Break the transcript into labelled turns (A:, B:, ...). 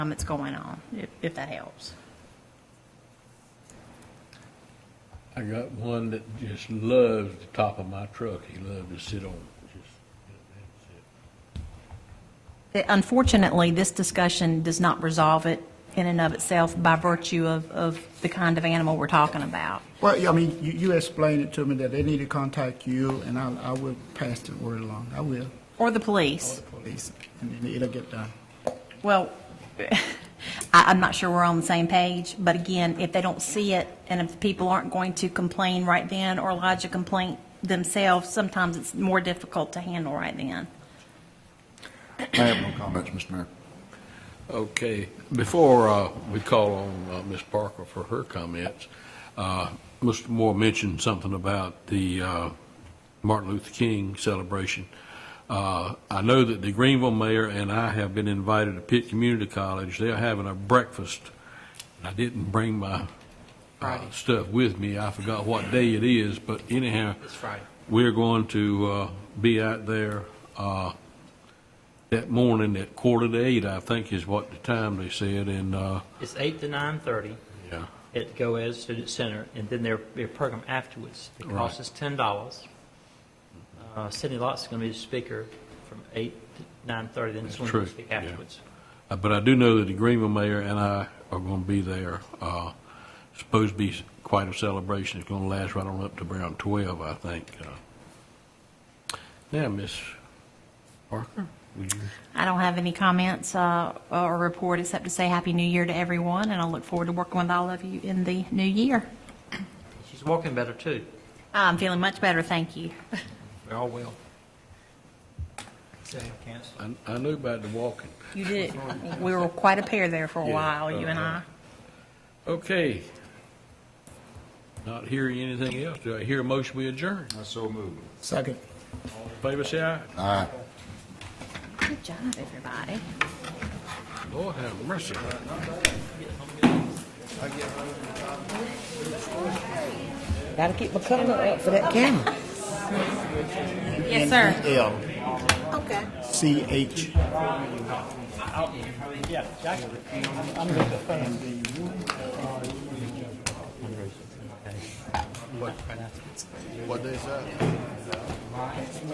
A: um, that's going on, if, if that helps.
B: I got one that just loves the top of my truck. He loved to sit on it. Just, that's it.
A: Unfortunately, this discussion does not resolve it in and of itself by virtue of, of the kind of animal we're talking about.
C: Well, yeah, I mean, you, you explained it to me that they need to contact you, and I, I will pass the word along. I will,
A: Or the
C: or
A: police.
C: the police, and then it'll get done.
A: Well, I, I'm not sure we're on the same page, but again, if they don't see it, and if people aren't going to complain right then or lodge a complaint themselves, sometimes it's more difficult to handle right then.
D: I have no comments, Mr. Mayor.
B: Okay, before uh, we call on uh, Ms. Parker for her comments, uh, Mr. Moore mentioned something about the uh, Martin Luther King celebration. Uh, I know that the Greenville mayor and I have been invited to Pitt Community College. They're having a breakfast. I didn't bring my uh, stuff with me. I forgot what day it is, but anyhow. It's Friday. We're going to uh, be out there uh, that morning at quarter to eight, I think is what the time they said, and, uh,
E: It's eight to nine thirty
B: yeah,
E: at Goaz Student Center, and then their, their program afterwards. It
B: Right.
E: costs us ten dollars. Uh, Sidney Lott's going to be the speaker from eight to nine thirty, then
B: That's
E: someone will
B: true,
E: speak
B: yeah.
E: afterwards.
B: Uh, but I do know that the Greenville mayor and I are going to be there. Uh, supposed to be quite a celebration. It's going to last right on up to around twelve, I think. Uh, Now, Miss Parker, would you?
A: I don't have any comments uh, or report except to say Happy New Year to everyone, and I look forward to working with all of you in the new year.
E: She's walking better, too.
A: I'm feeling much better, thank you.
E: We're all well. Say, Candace.
B: I, I knew about the walking.
A: You did. We were quite a pair there for a
B: Yeah,
A: while, you and I.
B: uh-huh. Okay. Not hearing anything else. Do I hear a motion we adjourn?
D: I so move.
C: Second.
B: All in favor, say aye.
D: Aye.
A: Good job, everybody.
B: Lord have mercy.
F: Gotta keep my cover up for that camera.
A: Yes, sir.
C: E L,
F: Okay.
C: C, H.
D: What they say?